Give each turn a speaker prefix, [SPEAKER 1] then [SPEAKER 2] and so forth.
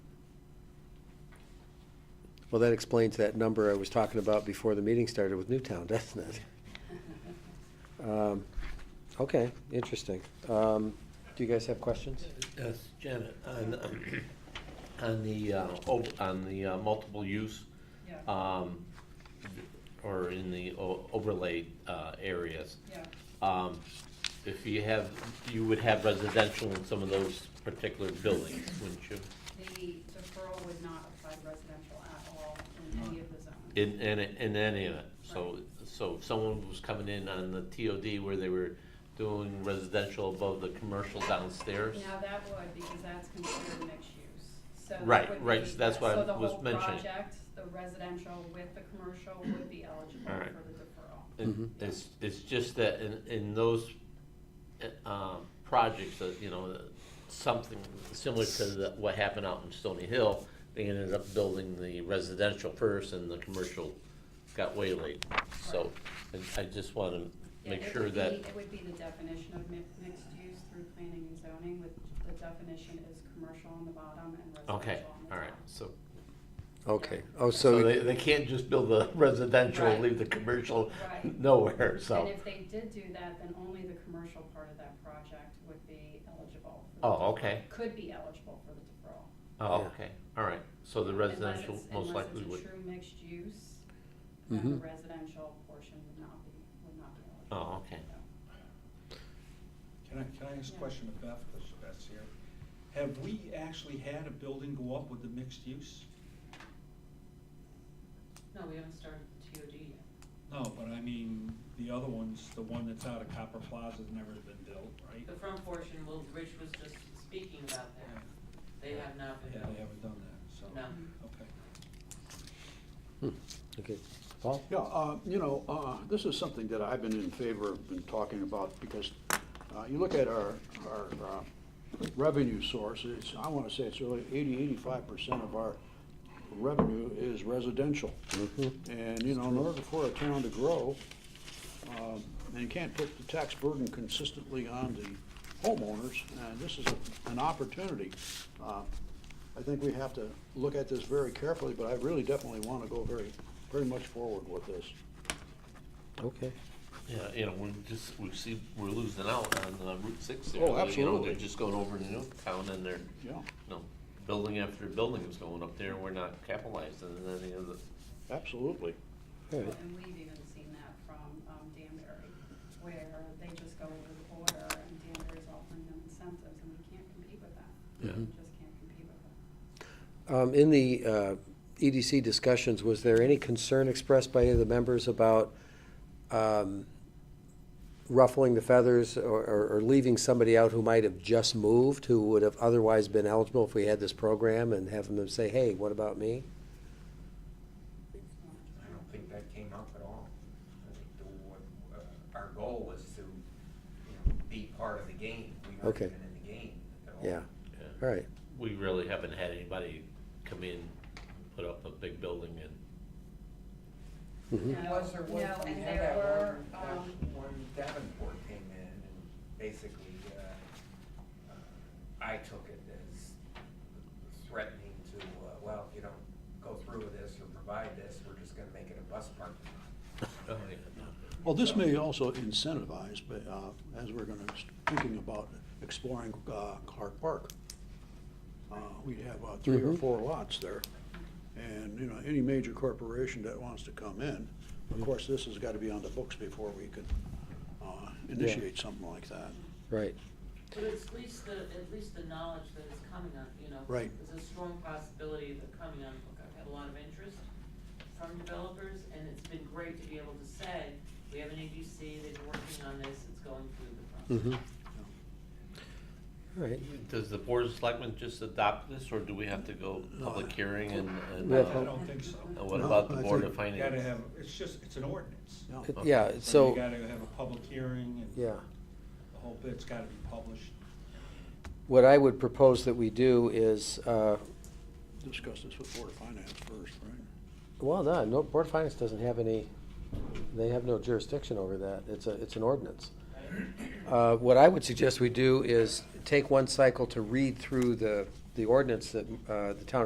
[SPEAKER 1] Well, that explains that number I was talking about before the meeting started with Newtown, doesn't it? Um, Okay, interesting. Um, Do you guys have questions?
[SPEAKER 2] Yes, Janet, on, um, on the, uh, op- on the uh, multiple use,
[SPEAKER 3] Yeah,
[SPEAKER 2] um, or in the o- overlay uh, areas,
[SPEAKER 3] yeah,
[SPEAKER 2] um, if you have, you would have residential in some of those particular buildings, wouldn't you?
[SPEAKER 3] the deferral would not apply to residential at all in any of the zones.
[SPEAKER 2] In, in, in any of it, so, so if someone was coming in on the TOD where they were doing residential above the commercial downstairs?
[SPEAKER 3] Now, that would, because that's considered mixed use, so. it
[SPEAKER 2] Right,
[SPEAKER 3] would
[SPEAKER 2] right,
[SPEAKER 3] be-
[SPEAKER 2] so that's what I
[SPEAKER 3] so the
[SPEAKER 2] was
[SPEAKER 3] whole
[SPEAKER 2] mentioning.
[SPEAKER 3] project, The residential with the commercial would be eligible
[SPEAKER 2] All right.
[SPEAKER 3] for the deferral.
[SPEAKER 1] Mhm.
[SPEAKER 2] It- It's, it's just that in, in those, uh, um, projects that, you know, something similar to the- what happened out in Stony Hill, they ended up building the residential first and the commercial got way late. So I, I just wanna
[SPEAKER 3] Yeah,
[SPEAKER 2] make
[SPEAKER 3] it
[SPEAKER 2] sure
[SPEAKER 3] would
[SPEAKER 2] that,
[SPEAKER 3] be- It would be the definition of mi- mixed use through planning and zoning, with the definition is commercial on the bottom and residential on the
[SPEAKER 2] okay,
[SPEAKER 3] top.
[SPEAKER 2] all right, so.
[SPEAKER 1] Okay, oh,
[SPEAKER 2] So
[SPEAKER 1] so,
[SPEAKER 2] they, they can't just build the residential, and
[SPEAKER 3] Right.
[SPEAKER 2] leave the commercial
[SPEAKER 3] Right.
[SPEAKER 2] nowhere, so.
[SPEAKER 3] And if they did do that, then only the commercial part of that project would be eligible. for the
[SPEAKER 2] Oh,
[SPEAKER 3] deferral-
[SPEAKER 2] okay.
[SPEAKER 3] Could be eligible for the deferral.
[SPEAKER 2] Oh,
[SPEAKER 1] Yeah.
[SPEAKER 2] okay, all right, so the
[SPEAKER 3] Unless
[SPEAKER 2] residential
[SPEAKER 3] it's-
[SPEAKER 2] most likely
[SPEAKER 3] Unless
[SPEAKER 2] would,
[SPEAKER 3] it's a true mixed use, then the
[SPEAKER 1] Mhm.
[SPEAKER 3] residential portion would not be, would not be eligible.
[SPEAKER 2] oh, okay.
[SPEAKER 3] So,
[SPEAKER 4] Can I, can I ask
[SPEAKER 3] Yeah.
[SPEAKER 4] a question of Beth, because Beth's here? Have we actually had a building go up with the mixed use?
[SPEAKER 5] No, we haven't started the TOD yet.
[SPEAKER 4] No, but I mean, the other ones, the one that's out of Copper Plaza's never been built, right?
[SPEAKER 5] The front portion, well, Rich was just speaking about that, they have not been
[SPEAKER 4] Yeah,
[SPEAKER 5] built.
[SPEAKER 4] they haven't done that, so.
[SPEAKER 5] No.
[SPEAKER 4] Okay.
[SPEAKER 1] okay, Paul?
[SPEAKER 6] Yeah, uh, you know, uh, this is something that I've been in favor of, been talking about, because uh, you look at our, our uh, revenue sources, I want to say it's really 80, 85% of our revenue is residential. And, you know, in order for a town to grow, um, and you can't put the tax burden consistently on the homeowners, and this is a- an opportunity. Uh, I think we have to look at this very carefully, but I really definitely want to go very, very much forward with this.
[SPEAKER 1] Okay,
[SPEAKER 2] Yeah, Uh, you know, we're just, we see, we're losing out on uh, Route Six there.
[SPEAKER 6] Oh,
[SPEAKER 2] You know,
[SPEAKER 6] absolutely.
[SPEAKER 2] they're just going over to Newtown and they're, you
[SPEAKER 6] Yeah,
[SPEAKER 2] know, building after building is going up there. We're not capitalizing on any of the,
[SPEAKER 6] absolutely.
[SPEAKER 1] all right.
[SPEAKER 3] And we've even seen that from um, Danbury, where they just go over the border and Danbury's offering them incentives and we can't compete with that.
[SPEAKER 2] Yeah.
[SPEAKER 3] We Just can't compete with that.
[SPEAKER 1] Um, In the uh, EDC discussions, was there any concern expressed by any of the members about um, ruffling the feathers or- or or leaving somebody out who might have just moved, who would have otherwise been eligible if we had this program, and having them say, hey, what about me?
[SPEAKER 7] I don't think that came up at all. I think the, what, uh, our goal was to, you know, be part of the game. We weren't
[SPEAKER 1] Okay.
[SPEAKER 7] even in the game at all.
[SPEAKER 1] Yeah,
[SPEAKER 2] yeah.
[SPEAKER 1] all right,
[SPEAKER 2] we really haven't had anybody come in, put up a big building and,
[SPEAKER 1] Mhm.
[SPEAKER 3] No,
[SPEAKER 7] Was there one,
[SPEAKER 3] no,
[SPEAKER 7] we
[SPEAKER 3] and
[SPEAKER 7] had
[SPEAKER 3] there
[SPEAKER 7] that
[SPEAKER 3] were,
[SPEAKER 7] one, that
[SPEAKER 3] um,
[SPEAKER 7] one Davenport came in and basically, uh, uh, I took it as threatening to, uh, well, if you don't go through with this or provide this, we're just gonna make it a bus parking lot.
[SPEAKER 2] oh, yeah.
[SPEAKER 6] Well, this may also incentivize, but uh, as we're going to, thinking about exploring uh, Clark Park, uh, we'd have uh, three or
[SPEAKER 1] Mhm.
[SPEAKER 6] four lots there. And, you know, any major corporation that wants to come in, of course, this has got to be on the books before we could uh, initiate something like that.
[SPEAKER 1] right.
[SPEAKER 5] But it's at least the, at least the knowledge that is coming on, you know.
[SPEAKER 6] Right.
[SPEAKER 5] There's a strong possibility of it coming on, Look, I've had a lot of interest from developers, and it's been great to be able to say, we have an ABC, they've been working on this, it's going through the process.
[SPEAKER 1] Mhm. All right,
[SPEAKER 2] Does the board of selectmen just adopt this or do we have to go public hearing and, and
[SPEAKER 1] We have-
[SPEAKER 4] I
[SPEAKER 2] uh,
[SPEAKER 4] don't think so.
[SPEAKER 2] and what
[SPEAKER 6] No,
[SPEAKER 2] about the
[SPEAKER 6] I
[SPEAKER 2] board
[SPEAKER 6] think-
[SPEAKER 2] of
[SPEAKER 4] You gotta
[SPEAKER 2] finance?
[SPEAKER 4] have, it's just, it's an ordinance.
[SPEAKER 6] Yeah.
[SPEAKER 1] It-
[SPEAKER 2] Okay.
[SPEAKER 1] yeah,
[SPEAKER 4] You
[SPEAKER 1] so,
[SPEAKER 4] gotta have a public hearing and
[SPEAKER 1] yeah.
[SPEAKER 4] the whole bit's gotta be published.
[SPEAKER 1] What I would propose that we do is, uh,
[SPEAKER 6] Discuss this with Board of Finance first, right?
[SPEAKER 1] well, no, no, Board of Finance doesn't have any, they have no jurisdiction over that, it's a, it's an ordinance. Uh, What I would suggest we do is take one cycle to read through the, the ordinance that uh, the town